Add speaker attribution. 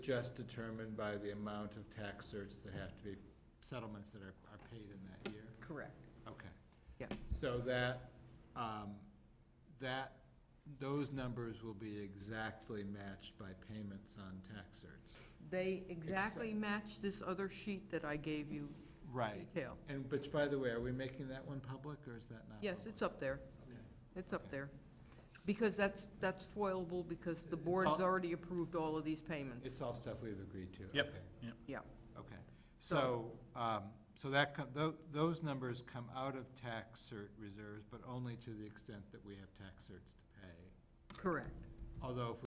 Speaker 1: just determined by the amount of tax certs that have to be, settlements that are, are paid in that year?
Speaker 2: Correct.
Speaker 1: Okay.
Speaker 2: Yeah.
Speaker 1: So that, um, that, those numbers will be exactly matched by payments on tax certs.
Speaker 2: They exactly match this other sheet that I gave you
Speaker 1: Right.
Speaker 2: detail.
Speaker 1: And, which, by the way, are we making that one public, or is that not?
Speaker 2: Yes, it's up there.
Speaker 1: Okay.
Speaker 2: It's up
Speaker 1: Okay.
Speaker 2: there. Because that's, that's foilable because the
Speaker 1: It's
Speaker 2: board's
Speaker 1: all-
Speaker 2: already approved all of these payments.
Speaker 1: It's all stuff we've agreed to?
Speaker 3: Yep.
Speaker 1: Okay.
Speaker 2: Yeah.
Speaker 1: Okay, so,
Speaker 2: So-
Speaker 1: um, so that, com- tho- those numbers come out of tax cert reserves, but only to the extent that we have tax certs to pay.
Speaker 2: Correct.
Speaker 1: Although if